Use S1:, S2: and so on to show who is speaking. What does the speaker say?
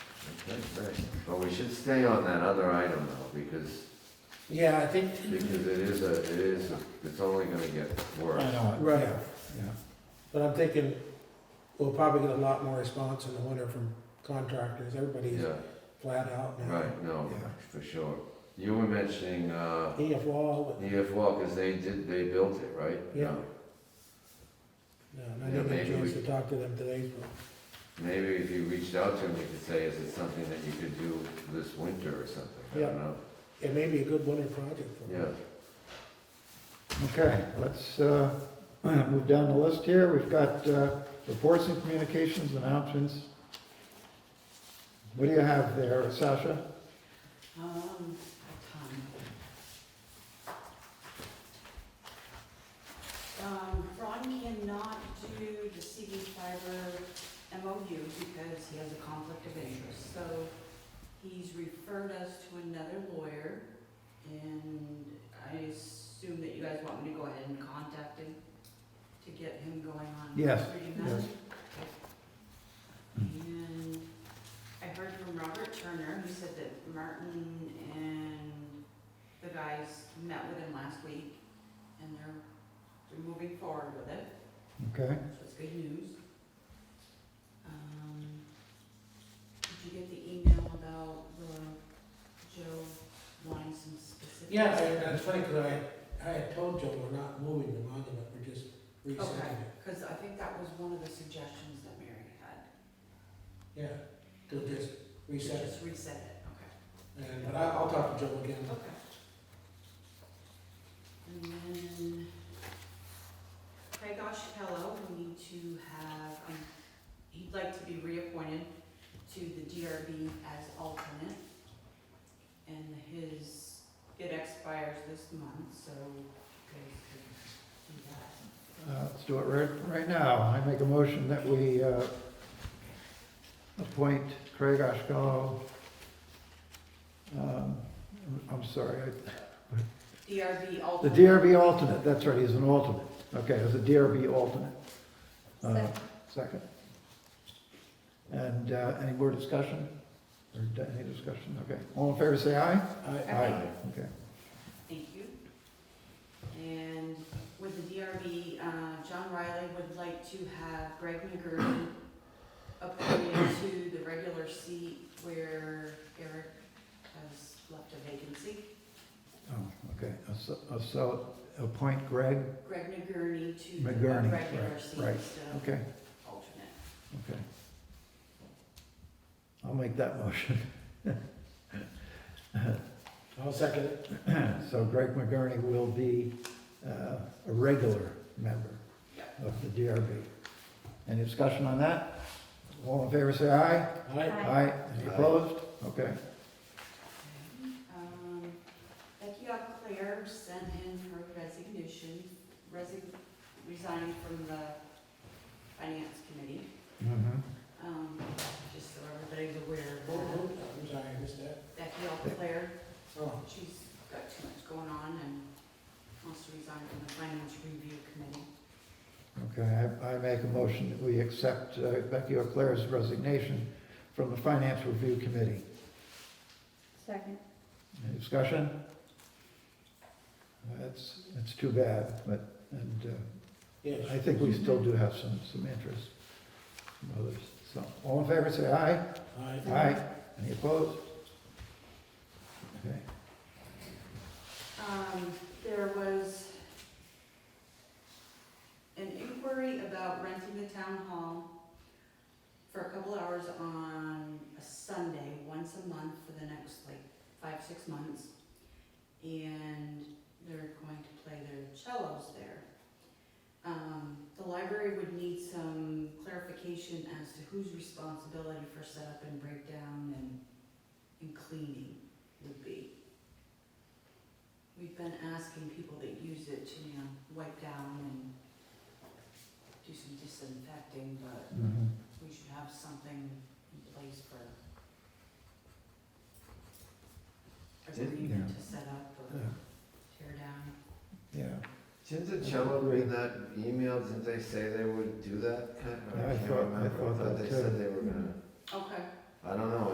S1: That's right. But we should stay on that other item though, because,
S2: Yeah, I think,
S1: because it is a, it is, a- it's only gonna get worse.
S3: I know, it.
S2: Right.
S3: yeah, yeah.
S2: but I'm thinking we'll probably get a lot more response in the winter from contractors. Everybody's
S1: Yeah,
S2: flat out now.
S1: right, no,
S3: Yeah.
S1: for sure. You were mentioning, uh,
S2: EF Wall, but,
S1: EF Wall, cause they did, they built it, right?
S2: Yeah.
S1: Yeah,
S2: no, I didn't get a
S1: maybe
S2: chance
S1: we-
S2: to talk to them today, but.
S1: Maybe if you reached out to them, you could say, is it something that you could do this winter or something? I
S2: Yeah.
S1: don't know.
S2: It may be a good winter project for
S1: Yeah.
S2: them.
S3: Okay, let's uh, move down the list here. We've got uh, reports and communications announcements. What do you have there, Sasha?
S4: Um, um, um, Ron cannot do the CD fiber MOU because he has a conflict of interest, so he's referred us to another lawyer, and I assume that you guys want me to go ahead and contact him to get him going on.
S3: Yes,
S4: reading that? Okay. And I heard from Robert Turner, who said that Martin and the guys met with him last week, and they're, they're moving forward with it,
S3: Okay,
S4: so it's good news. Um, Did you get the email about the Joe wanting some specifics?
S2: Yeah, I- that's funny, because I, I had told Joe we're not moving the monument, we're just resetting it.
S4: Because I think that was one of the suggestions that Mary had,
S2: Yeah, they'll just reset it.
S4: just reset it,
S2: And, but I, I'll talk to Joe again.
S4: okay, okay. And then Craig Oshapello, we need to have, um, he'd like to be reappointed to the DRB as alternate. And his, it expires this month, so you guys could do that.
S3: uh, let's do it right, right now. I make a motion that we uh, appoint Craig Oshkosh. um, I'm sorry, I-
S4: DRB
S3: the
S4: alternate.
S3: DRB alternate, that's right, he's an alternate. Okay, as a DRB alternate. Uh, Second. And uh, any more discussion? Or d- any discussion? Okay. All in favor, say aye.
S2: I,
S4: Aye.
S3: Okay.
S4: Thank you. And with the DRB, uh, John Riley would like to have Greg McGurran appointed to the regular seat where Eric has left a vacancy.
S3: Oh, okay. Uh, So, uh, so appoint Greg.
S4: Greg McGurney to the
S3: McGurney,
S4: regular
S3: right,
S4: seat
S3: right.
S4: instead
S3: Okay,
S4: of alternate.
S3: okay. I'll make that motion.
S2: I'll second it.
S3: So Greg McGurney will be uh, a regular member of the DRB. Any discussion on that? All in favor, say aye.
S2: Aye.
S3: Aye. Any
S1: Aye.
S3: opposed? Okay.
S4: Um, Becky Claire sent in her resignation, resign, resigning from the finance committee.
S3: Mhm.
S4: Um, just so everybody's aware,
S2: Oh, oh, I'm sorry, I missed that.
S4: Becky Alclair,
S2: Oh,
S4: she's got too much going on and wants to resign from the Finance Review Committee.
S3: Okay, I, I make a motion that we accept uh, Becky O'Clair's resignation from the Finance Review Committee.
S5: Second.
S3: Any discussion? That's, it's too bad, but, and
S2: yes.
S3: uh, I think we still do have some, some interest from others. So, all in favor, say aye.
S2: Aye.
S3: Aye. Any opposed? Okay.
S4: Um, there was an inquiry about renting the town hall for a couple hours on a Sunday, once a month for the next like five, six months. And they're going to play their cellos there. Um, the library would need some clarification as to whose responsibility for setup and breakdown and, and cleaning would be. We've been asking people that use it to, you know, wipe down and do some disinfecting, but
S3: Mhm.
S4: we should have something in place for agreement to set up or
S3: Yeah.
S4: tear down.
S3: Yeah,
S1: Didn't the cello in that email, didn't they say they would do that? I
S3: Yeah, I
S1: can't
S3: thought- I
S1: remember.
S3: thought that
S1: They
S3: too.
S1: said they were gonna